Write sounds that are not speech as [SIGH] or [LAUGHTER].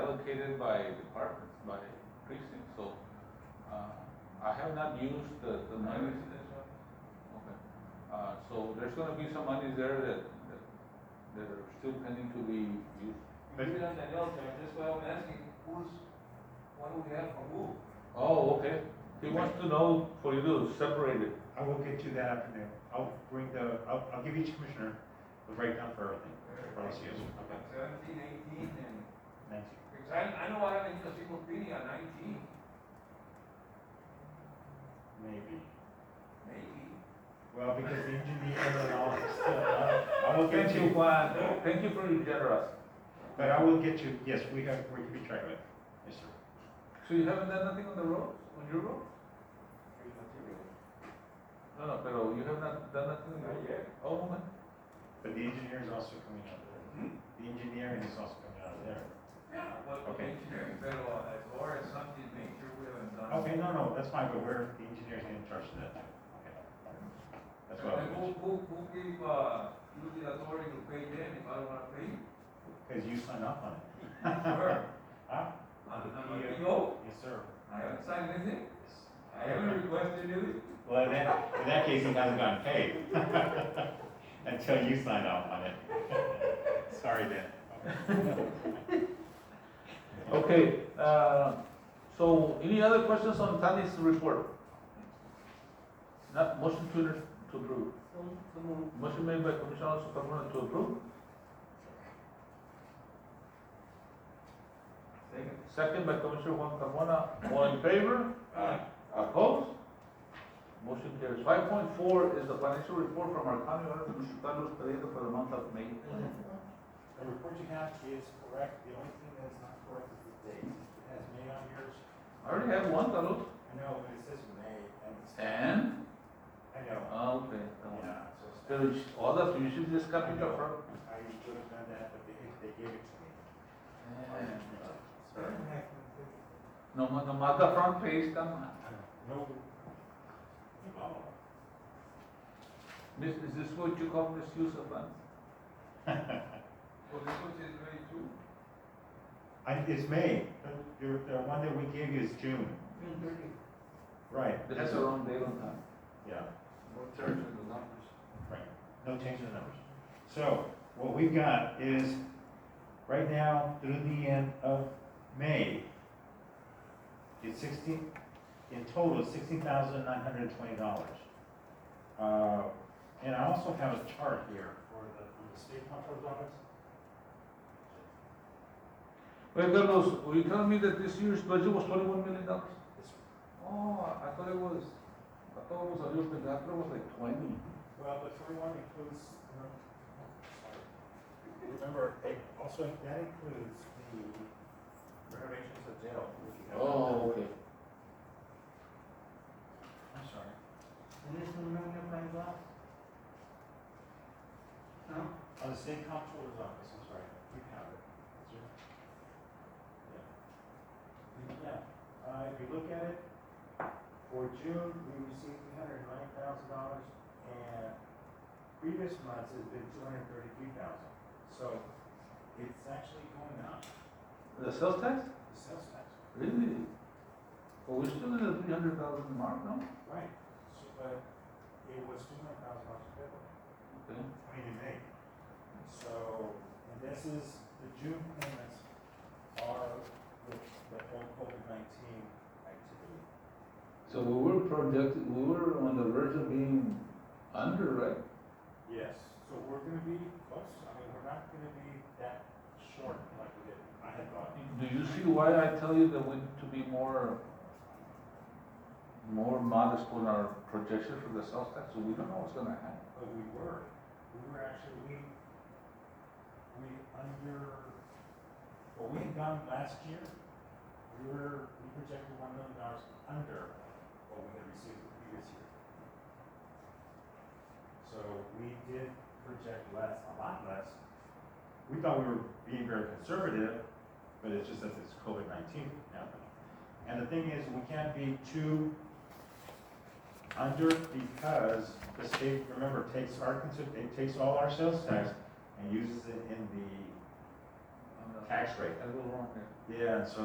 by departments, by precincts, so, uh, I have not used the, the money. Okay, uh, so there's gonna be some money there that, that, that are still pending to be used. We did on that else, and that's why I'm asking, who's, what do we have for who? Oh, okay, he wants to know for you to separate it. I will get you that afternoon. I'll bring the, I'll, I'll give each commissioner the breakdown for everything. For all COs. Okay. Seventeen, eighteen, and, Thank you. because I, I know I have an encyclopedia on nineteen, Maybe. maybe. Well, because the engineer and all, so, uh, I will get Thank you, you, Juan, thank you for your generosity. but I will get you, yes, we have, we can be tracked with. Yes, sir. So you haven't done nothing on the roads, on your roads? No, no, pero you have not done nothing on the roads? yet. Oh, man. But the engineer is also coming out of there. The engineering is also coming out of there. Yeah, but the Okay. engineering federal law, as far as something, make sure we haven't done. Okay, no, no, that's fine, but we're, the engineer's in charge of that. Okay. That's what I And will who, mention. who, who gave, uh, you the authority to pay them if I don't wanna pay? you? Because you signed up on it. Sure. Huh? I'm, I'm a Yeah. PO, Ah, Yes, sir. I haven't signed anything, Yes. I haven't requested anything. Well, in that, in that case, he hasn't gotten paid. [LAUGHS] Until you sign off on it. [LAUGHS] Sorry, Dan. Okay, uh, so any other questions on Tani's report? Not, motion to, to approve. Motion made by Commissioner Alonso Carmona to approve, Second. second by Commissioner Juan Carmona, all in favor? Opposed? Motion carries. Five point four is the financial report from our county auditor, Commissioner Carlos Pereira, for the month of May. The report you have is correct, the only thing that is not correct is the date. It has May on yours, I already have one, Carlos. I know, but it says May, and it's, And? I know, Okay. yeah, so it's- So it's- all that, you should just copy it from. I should have done that, but they, they gave it to me. Sorry. No, ma- no, ma- the front page, come on. No. Oh. This, is this what you call misuse of funds? Well, this one says May two. I, it's May, but your, the one that we gave you is June. Right. That's the wrong date on time. Yeah, No charge in the numbers. right. No change in the numbers. So what we've got is, right now, through the end of May, it's sixteen, in total, sixteen thousand nine hundred and twenty dollars. Uh, and I also have a chart here. For the, from the state comptroller's office? Wait, Carlos, were you telling me that this year's budget was twenty-one million dollars? This- Oh, I I thought it was, I thought it was a little bit, I thought it was like twenty. Well, the twenty-one includes, no, sorry. [LAUGHS] Remember, it also, that includes the renovations of jail, which you have. Oh, okay. I'm sorry. No? Oh, the state comptroller's office, I'm sorry, you have it. Is it? Yeah. Yeah, uh, if you look at it, for June, we received three hundred and nine thousand dollars, and previous months has been two hundred and thirty-three thousand. So, it's actually going up, The sales tax? the sales tax. Really? But we're still in the three hundred thousand mark, no? Right. So, but it was two hundred thousand dollars in February. Okay. I mean, in May. So, and this is, the June payments are the, the whole COVID nineteen activity. So we were projected, we were on the verge of being under, right? Yes, so we're gonna be close, I mean, we're not gonna be that short like we did, I had thought. Do you see why I tell you that we need to be more, more modest on our projection for the sales tax? So we don't know what's gonna happen. But we were, we were actually, we, we under, what we had done last year, we were, we projected one million dollars under what we had received the previous year. So we did project less, a lot less. We thought we were being very conservative, but it's just that it's COVID nineteen happening. And the thing is, we can't be too under because the state, remember, takes our, consi- it takes all our sales tax and uses it in the tax rate. I go wrong here. Yeah, and so